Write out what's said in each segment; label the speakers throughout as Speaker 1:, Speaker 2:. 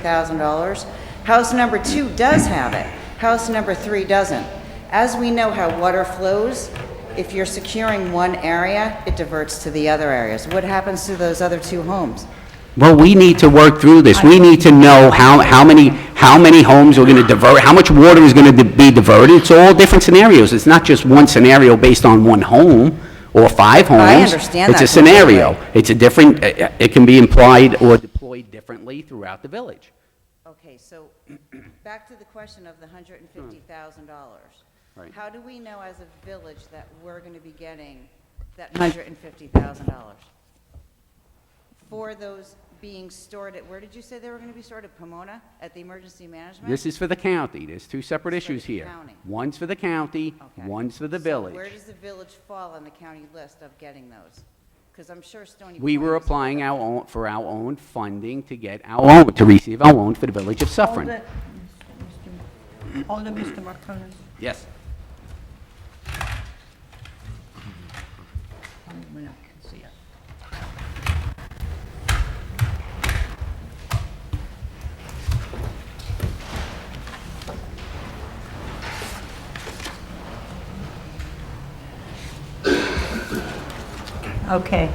Speaker 1: $150,000. House number two does have it. House number three doesn't. As we know how water flows, if you're securing one area, it diverts to the other areas. What happens to those other two homes?
Speaker 2: Well, we need to work through this. We need to know how, how many, how many homes are going to divert, how much water is going to be diverted. It's all different scenarios. It's not just one scenario based on one home or five homes.
Speaker 1: understand that
Speaker 2: It's a scenario. It's a different, uh, uh, it can be implied or deployed differently throughout the village.
Speaker 1: Okay, so back to the question of the $150,000.
Speaker 2: Right.
Speaker 1: How do we know as a village that we're going to be getting that $150,000? For those being stored at, where did you say they were going to be stored? At Pomona? At the emergency management?
Speaker 2: This is for the county. There's two separate
Speaker 1: It's for the
Speaker 2: issues here.
Speaker 1: county.
Speaker 2: One's for the county,
Speaker 1: Okay.
Speaker 2: one's for the
Speaker 1: So where
Speaker 2: village.
Speaker 1: does the village fall on the county list of getting those? Because I'm sure Stony Point...
Speaker 2: We were
Speaker 1: was-
Speaker 2: applying our own, for our own funding to get our own, to receive our own for the village of Suffering.
Speaker 3: Hold it, Mr. Hold it, Mr. Marconis.
Speaker 2: Yes.
Speaker 3: When I can see it. Okay.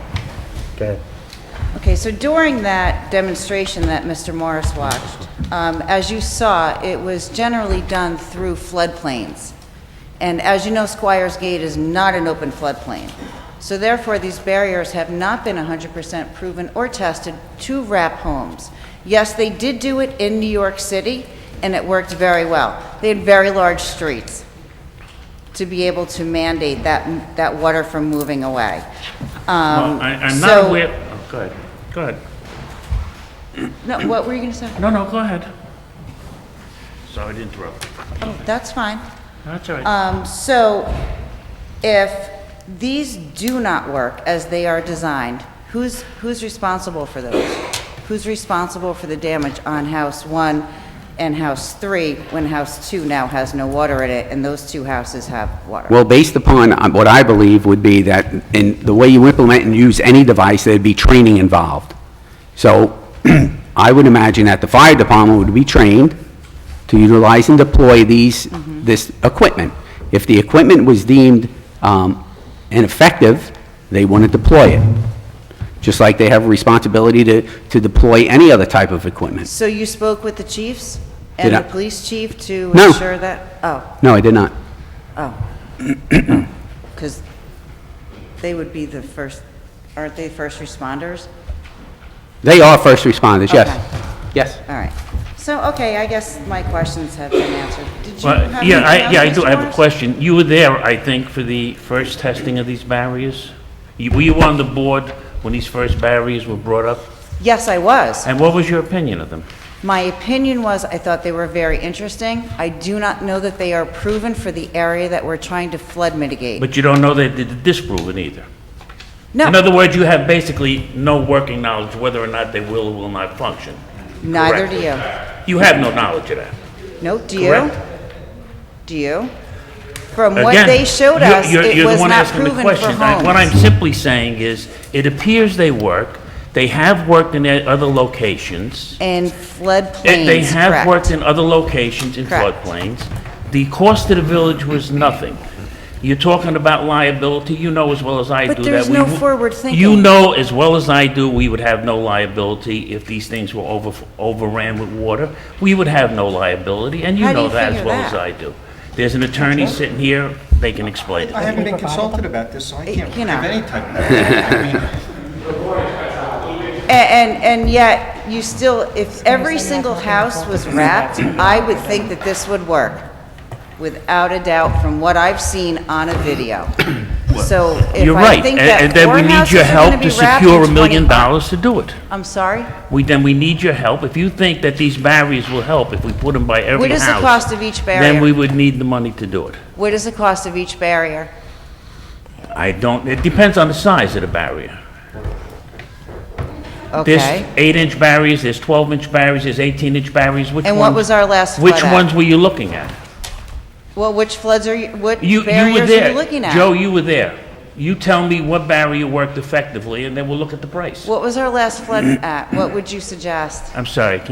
Speaker 1: Okay, so during that demonstration that Mr. Morris watched, um, as you saw, it was generally done through floodplains. And as you know, Squires Gate is not an open floodplain. So therefore, these barriers have not been 100% proven or tested to wrap homes. Yes, they did do it in New York City, and it worked very well. They had very large streets to be able to mandate that, that water from moving away. Um,
Speaker 4: Well, I- I'm
Speaker 1: so-
Speaker 4: not aware, oh, go ahead, go ahead.
Speaker 1: No, what were you going to say?
Speaker 4: No, no, go ahead. Sorry to interrupt.
Speaker 1: That's fine.
Speaker 4: That's all right.
Speaker 1: Um, so if these do not work as they are designed, who's, who's responsible for those? Who's responsible for the damage on house one and house three when house two now has no water in it and those two houses have water?
Speaker 2: Well, based upon uh, what I believe would be that, in the way you implement and use any device, there'd be training involved. So I would imagine that the fire department would be trained to utilize and deploy these, this equipment. If the equipment was deemed um, ineffective, they wouldn't deploy it, just like they have a responsibility to, to deploy any other type of equipment.
Speaker 1: So you spoke with the chiefs and
Speaker 2: Did
Speaker 1: the
Speaker 2: I-
Speaker 1: police chief to
Speaker 2: No.
Speaker 1: ensure that? Oh,
Speaker 2: No, I did not.
Speaker 1: oh. Because they would be the first, aren't they first responders?
Speaker 2: They are first responders, yes.
Speaker 1: Okay.
Speaker 2: Yes.
Speaker 1: All right. So, okay, I guess my questions have been answered. Did you have
Speaker 4: Well, yeah,
Speaker 1: anything
Speaker 4: I, yeah, I
Speaker 1: else,
Speaker 4: do,
Speaker 1: Mr.
Speaker 4: I have a
Speaker 1: Morris?
Speaker 4: question. You were there, I think, for the first testing of these barriers? You- Were you on the board when these first barriers were brought up?
Speaker 1: Yes, I was.
Speaker 4: And what was your opinion of them?
Speaker 1: My opinion was, I thought they were very interesting. I do not know that they are proven for the area that we're trying to flood mitigate.
Speaker 4: But you don't know they did disprove it either. In
Speaker 1: No,
Speaker 4: other words, you have basically no working knowledge whether or not they will or will not function.
Speaker 1: neither do
Speaker 4: correctly.
Speaker 1: you.
Speaker 4: You have no knowledge of that.
Speaker 1: No, do you?
Speaker 4: Correct.
Speaker 1: Do you? From what
Speaker 4: Again,
Speaker 1: they showed
Speaker 4: you're-
Speaker 1: us,
Speaker 4: you're-
Speaker 1: it
Speaker 4: you're the
Speaker 1: was
Speaker 4: one
Speaker 1: not
Speaker 4: asking the
Speaker 1: proven for
Speaker 4: question. I- What I'm
Speaker 1: homes.
Speaker 4: simply saying is, it appears they work. They have worked in their other locations.
Speaker 1: And floodplains,
Speaker 4: They-
Speaker 1: correct.
Speaker 4: They have worked in other locations in
Speaker 1: Correct.
Speaker 4: floodplains. The cost to the village was nothing. You're talking about liability, you know as well as I do
Speaker 1: But
Speaker 4: that.
Speaker 1: there's
Speaker 4: we
Speaker 1: no
Speaker 4: w-
Speaker 1: forward
Speaker 4: You
Speaker 1: thinking.
Speaker 4: know as well as I do, we would have no liability if these things were over overran with water. We would have no liability, and
Speaker 1: How
Speaker 4: you
Speaker 1: do
Speaker 4: know
Speaker 1: you
Speaker 4: that as
Speaker 1: figure
Speaker 4: well as
Speaker 1: that?
Speaker 4: I do. There's an attorney sitting here, they can explain it.
Speaker 5: I haven't been consulted about this, so I can't
Speaker 1: You
Speaker 5: give
Speaker 1: know.
Speaker 5: any type of... I mean,
Speaker 1: A- And, and yet, you still, if every single house was wrapped, I would think that this would work, without a doubt, from what I've seen on a video. So if
Speaker 4: You're
Speaker 1: I
Speaker 4: right,
Speaker 1: think
Speaker 4: and
Speaker 1: that
Speaker 4: and then
Speaker 1: four
Speaker 4: we need
Speaker 1: houses
Speaker 4: your
Speaker 1: are
Speaker 4: help
Speaker 1: gonna be
Speaker 4: to
Speaker 1: wrapped in
Speaker 4: secure a
Speaker 1: 20
Speaker 4: million dollars to do it.
Speaker 1: I'm sorry?
Speaker 4: We, then we need your help. If you think that these barriers will help, if we put them by every house...
Speaker 1: What is the cost of each
Speaker 4: Then we
Speaker 1: barrier?
Speaker 4: would need the money to do it.
Speaker 1: What is the cost of each barrier?
Speaker 4: I don't, it depends on the size of the barrier. There's
Speaker 1: Okay.
Speaker 4: eight-inch barriers, there's 12-inch barriers, there's 18-inch barriers, which ones?
Speaker 1: And what was our last flood
Speaker 4: Which
Speaker 1: at?
Speaker 4: ones were you looking at?
Speaker 1: Well, which floods are you, what
Speaker 4: You, you were
Speaker 1: barriers are
Speaker 4: there.
Speaker 1: you looking at?
Speaker 4: Joe, you were there. You tell me what barrier worked effectively, and then we'll look at the price.
Speaker 1: What was our last flood at? What would you suggest?
Speaker 4: I'm sorry, I can't